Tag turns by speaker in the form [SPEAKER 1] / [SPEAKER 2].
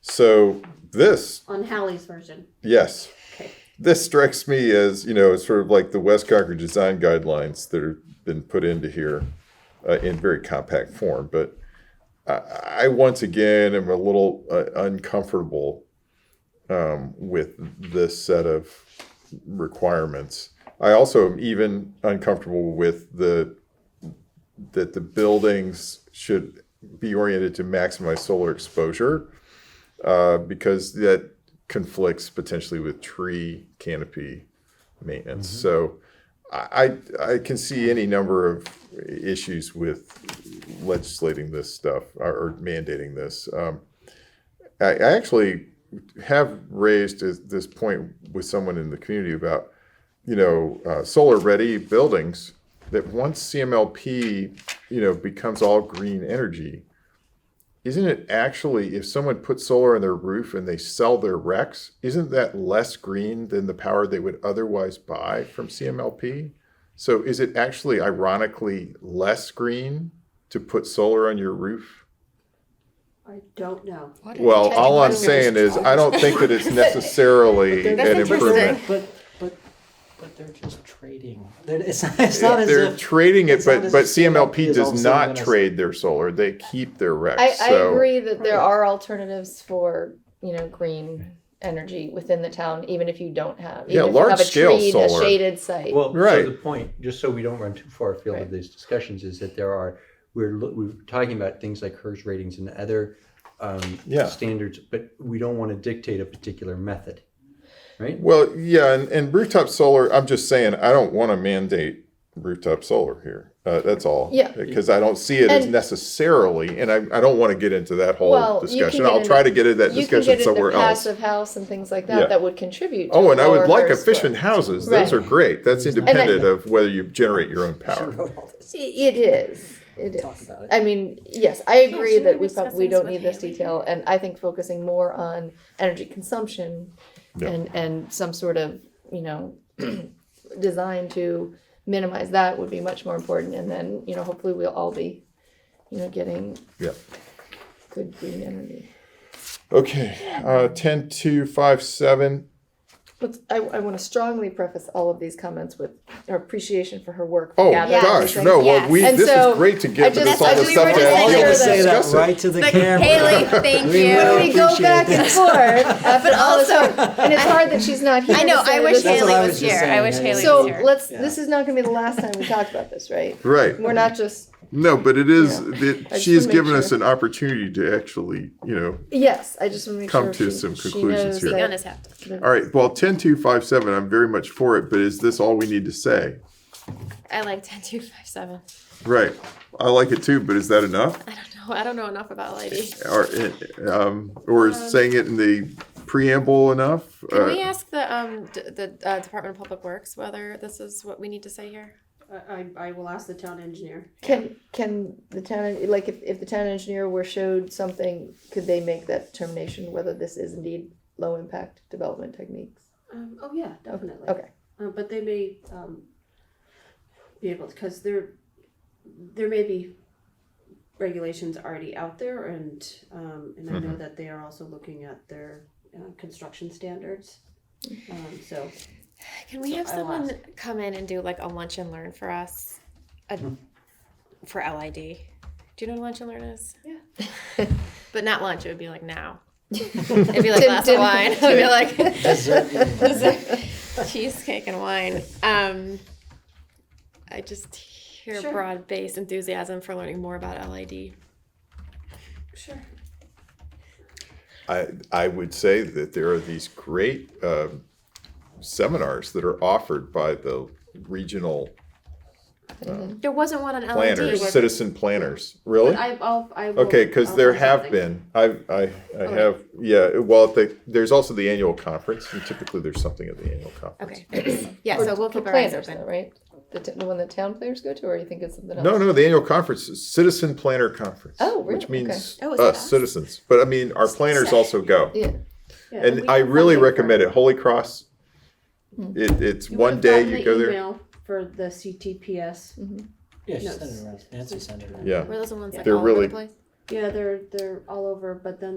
[SPEAKER 1] So this,
[SPEAKER 2] on Hallie's version.
[SPEAKER 1] yes,
[SPEAKER 2] Okay.
[SPEAKER 1] this strikes me as you know it's sort of like the West Concord design guidelines that have been put into here uh, in very compact form. But I, I once again am a little uh, uncomfortable um, with this set of requirements. I also am even uncomfortable with the that the buildings should be oriented to maximize solar exposure uh, because that conflicts potentially with tree canopy maintenance. So I, I I can see any number of issues with legislating this stuff or, or mandating this. Um, I, I actually have raised this- this point with someone in the community about you know uh, solar ready buildings that once CMLP you know becomes all green energy isn't it actually if someone puts solar on their roof and they sell their RECs, isn't that less green than the power they would otherwise buy from CMLP? So is it actually ironically less green to put solar on your roof?
[SPEAKER 2] I don't know.
[SPEAKER 3] What a
[SPEAKER 1] Well, all I'm
[SPEAKER 3] technical
[SPEAKER 1] saying is I
[SPEAKER 3] response.
[SPEAKER 1] don't think that it's necessarily
[SPEAKER 4] That's
[SPEAKER 1] an
[SPEAKER 4] interesting.
[SPEAKER 1] improvement.
[SPEAKER 4] But, but, but they're just trading. They're- It's not, it's not as
[SPEAKER 1] They're
[SPEAKER 4] if.
[SPEAKER 1] trading it,
[SPEAKER 4] it's not
[SPEAKER 1] but
[SPEAKER 4] as
[SPEAKER 1] but
[SPEAKER 4] if CMLP
[SPEAKER 1] CMLP
[SPEAKER 4] is all of a
[SPEAKER 1] does
[SPEAKER 4] sudden
[SPEAKER 1] not
[SPEAKER 4] gonna-
[SPEAKER 1] trade their solar. They keep their
[SPEAKER 3] I,
[SPEAKER 1] RECs.
[SPEAKER 3] I
[SPEAKER 1] So
[SPEAKER 3] agree that there are alternatives for you know green energy within the town, even if you don't have
[SPEAKER 1] Yeah,
[SPEAKER 3] even if you have a
[SPEAKER 1] large-scale
[SPEAKER 3] tree,
[SPEAKER 1] solar.
[SPEAKER 3] a shaded site.
[SPEAKER 4] Well,
[SPEAKER 1] Right.
[SPEAKER 4] so the point, just so we don't run too far afield
[SPEAKER 3] Right.
[SPEAKER 4] of these discussions, is that there are, we're, lo- we're talking about things like HERS ratings and other um,
[SPEAKER 1] Yeah.
[SPEAKER 4] standards, but we don't want to dictate a particular method, right?
[SPEAKER 1] Well, yeah, and, and rooftop solar. I'm just saying, I don't want to mandate rooftop solar here. Uh, that's all.
[SPEAKER 3] Yeah.
[SPEAKER 1] Because I don't see it as
[SPEAKER 3] And-
[SPEAKER 1] necessarily, and I, I don't want to get into that whole
[SPEAKER 3] Well, you can
[SPEAKER 1] discussion.
[SPEAKER 3] get
[SPEAKER 1] I'll
[SPEAKER 3] into-
[SPEAKER 1] try to get into that
[SPEAKER 3] you can
[SPEAKER 1] discussion
[SPEAKER 3] get
[SPEAKER 1] somewhere
[SPEAKER 3] into
[SPEAKER 1] else.
[SPEAKER 3] passive house and things like that
[SPEAKER 1] Yeah.
[SPEAKER 3] that would contribute. To
[SPEAKER 1] Oh, and I
[SPEAKER 3] lower
[SPEAKER 1] would like
[SPEAKER 3] HERS
[SPEAKER 1] efficient
[SPEAKER 3] score.
[SPEAKER 1] houses. Those
[SPEAKER 3] Right.
[SPEAKER 1] are great. That's
[SPEAKER 4] Right.
[SPEAKER 1] independent of whether you generate your own
[SPEAKER 4] She
[SPEAKER 1] power.
[SPEAKER 4] wrote all this.
[SPEAKER 3] It is. It
[SPEAKER 4] Talk
[SPEAKER 3] is.
[SPEAKER 4] about it.
[SPEAKER 3] I mean, yes, I agree
[SPEAKER 5] she
[SPEAKER 3] that
[SPEAKER 5] would
[SPEAKER 3] we
[SPEAKER 5] discuss
[SPEAKER 3] prob- we
[SPEAKER 5] this
[SPEAKER 3] don't
[SPEAKER 5] with
[SPEAKER 3] need this
[SPEAKER 5] Haley.
[SPEAKER 3] detail, and I think focusing more on energy consumption
[SPEAKER 1] Yeah.
[SPEAKER 3] and and some sort of you know design to minimize that would be much more important, and then you know hopefully we'll all be you know getting
[SPEAKER 1] Yeah.
[SPEAKER 3] good green energy.
[SPEAKER 1] Okay. Uh, ten two five seven.
[SPEAKER 3] But I, I want to strongly preface all of these comments with our appreciation for her work.
[SPEAKER 1] Oh
[SPEAKER 3] gathering
[SPEAKER 1] gosh,
[SPEAKER 3] these
[SPEAKER 1] no. Well,
[SPEAKER 5] yes.
[SPEAKER 1] we
[SPEAKER 3] And
[SPEAKER 1] this
[SPEAKER 3] so,
[SPEAKER 1] is great to
[SPEAKER 3] I
[SPEAKER 1] get
[SPEAKER 3] just-
[SPEAKER 1] this all
[SPEAKER 3] I-
[SPEAKER 1] the
[SPEAKER 3] we
[SPEAKER 1] stuff
[SPEAKER 3] were
[SPEAKER 1] to
[SPEAKER 3] just
[SPEAKER 1] all
[SPEAKER 3] saying
[SPEAKER 1] be able to
[SPEAKER 3] that- Say that
[SPEAKER 1] discuss it.
[SPEAKER 4] to the
[SPEAKER 5] Like, Haley, thank
[SPEAKER 3] We
[SPEAKER 5] you.
[SPEAKER 3] go back and forth, uh, but also, and it's hard that she's not here.
[SPEAKER 5] I know.
[SPEAKER 3] to say
[SPEAKER 5] I wish
[SPEAKER 3] this.
[SPEAKER 4] That's what
[SPEAKER 5] Haley
[SPEAKER 4] I
[SPEAKER 5] was,
[SPEAKER 4] was just
[SPEAKER 5] here. I
[SPEAKER 4] saying,
[SPEAKER 5] wish
[SPEAKER 4] yeah.
[SPEAKER 5] Haley
[SPEAKER 3] So
[SPEAKER 5] was here.
[SPEAKER 3] let's.
[SPEAKER 4] Yeah.
[SPEAKER 3] This is not going to be the last time we talked about this, right?
[SPEAKER 1] Right.
[SPEAKER 3] We're not just
[SPEAKER 1] No, but it is.
[SPEAKER 3] Yeah.
[SPEAKER 1] That
[SPEAKER 3] just
[SPEAKER 1] she has
[SPEAKER 3] wanna make
[SPEAKER 1] given us
[SPEAKER 3] sure.
[SPEAKER 1] an opportunity to actually, you know,
[SPEAKER 3] yes. I just want to make
[SPEAKER 1] Come
[SPEAKER 3] sure
[SPEAKER 1] to
[SPEAKER 3] she-
[SPEAKER 1] some
[SPEAKER 3] she
[SPEAKER 1] conclusions
[SPEAKER 3] knows
[SPEAKER 1] here.
[SPEAKER 3] that-
[SPEAKER 5] Being on his hat.
[SPEAKER 1] All right. Well, ten two five seven. I'm very much for it, but is this all we need to say?
[SPEAKER 5] I like 10257.
[SPEAKER 1] Right. I like it too, but is that enough?
[SPEAKER 5] I don't know. I don't know enough about lady.
[SPEAKER 1] Or um, or is saying it in the preamble enough?
[SPEAKER 5] Can
[SPEAKER 1] Uh,
[SPEAKER 5] we ask the um d- the uh, Department of Public Works whether this is what we need to say here?
[SPEAKER 2] I, I, I will ask the town engineer.
[SPEAKER 3] Can can the town like if, if the town engineer were showed something, could they make that determination whether this is indeed low impact development techniques?
[SPEAKER 2] Um, oh yeah, definitely.
[SPEAKER 3] Okay.
[SPEAKER 2] Uh, but they may um, be able because there there may be regulations already out there, and um, and I
[SPEAKER 1] Mm-hmm.
[SPEAKER 2] know that they are also looking at their uh, construction standards.
[SPEAKER 3] Mm-hmm.
[SPEAKER 2] Um, so
[SPEAKER 5] Can we have
[SPEAKER 2] I will
[SPEAKER 5] someone come in and do like a lunch and learn for us, a,
[SPEAKER 1] Hmm.
[SPEAKER 5] for LID? Do you know what lunch and learn is?
[SPEAKER 2] Yeah.
[SPEAKER 5] but not lunch. It would be like now. It'd be like
[SPEAKER 3] Dim-
[SPEAKER 5] glass
[SPEAKER 3] dim-
[SPEAKER 5] of wine. It'd be like.
[SPEAKER 4] Dessert.
[SPEAKER 5] cheesecake and wine. Um, I just hear
[SPEAKER 2] Sure.
[SPEAKER 5] broad-based enthusiasm for learning more about LID.
[SPEAKER 2] sure.
[SPEAKER 1] I I would say that there are these great um, seminars that are offered by the regional
[SPEAKER 5] There wasn't one on
[SPEAKER 1] planners,
[SPEAKER 5] LID.
[SPEAKER 1] citizen planners. Really?
[SPEAKER 2] But I, I'll, I will,
[SPEAKER 1] Okay, because
[SPEAKER 2] I'll
[SPEAKER 1] there
[SPEAKER 2] find
[SPEAKER 1] have
[SPEAKER 2] something.
[SPEAKER 1] been. I I I have. Yeah. Well, the, there's also the annual conference, and typically there's something at the annual conference.
[SPEAKER 5] Okay. Yeah, so we'll
[SPEAKER 3] For
[SPEAKER 5] keep our eyes
[SPEAKER 3] planners,
[SPEAKER 5] open.
[SPEAKER 3] though, right? The, t- the one that town players go to, or you think it's something else?
[SPEAKER 1] No, no, the annual conference is Citizen Planner Conference.
[SPEAKER 3] Oh,
[SPEAKER 1] Which
[SPEAKER 3] really?
[SPEAKER 1] means
[SPEAKER 5] Okay. Oh, is it
[SPEAKER 1] us,
[SPEAKER 5] us?
[SPEAKER 1] citizens. But I mean, our planners also go.
[SPEAKER 3] Yeah.
[SPEAKER 2] Yeah, we
[SPEAKER 1] And I
[SPEAKER 2] have
[SPEAKER 1] really
[SPEAKER 2] funding for-
[SPEAKER 1] recommend it. Holy Cross. It, it's
[SPEAKER 2] You
[SPEAKER 1] one
[SPEAKER 2] would've
[SPEAKER 1] day
[SPEAKER 2] gotten
[SPEAKER 1] you
[SPEAKER 2] the
[SPEAKER 1] go there.
[SPEAKER 2] email for the CTPS.
[SPEAKER 6] Yeah, she
[SPEAKER 2] No,
[SPEAKER 6] sent
[SPEAKER 2] it's-
[SPEAKER 6] it around. Nancy sent it around.
[SPEAKER 1] Yeah.
[SPEAKER 5] Were those the ones like
[SPEAKER 1] They're
[SPEAKER 5] all over
[SPEAKER 1] really-
[SPEAKER 5] the place?
[SPEAKER 2] Yeah, they're they're all over, but then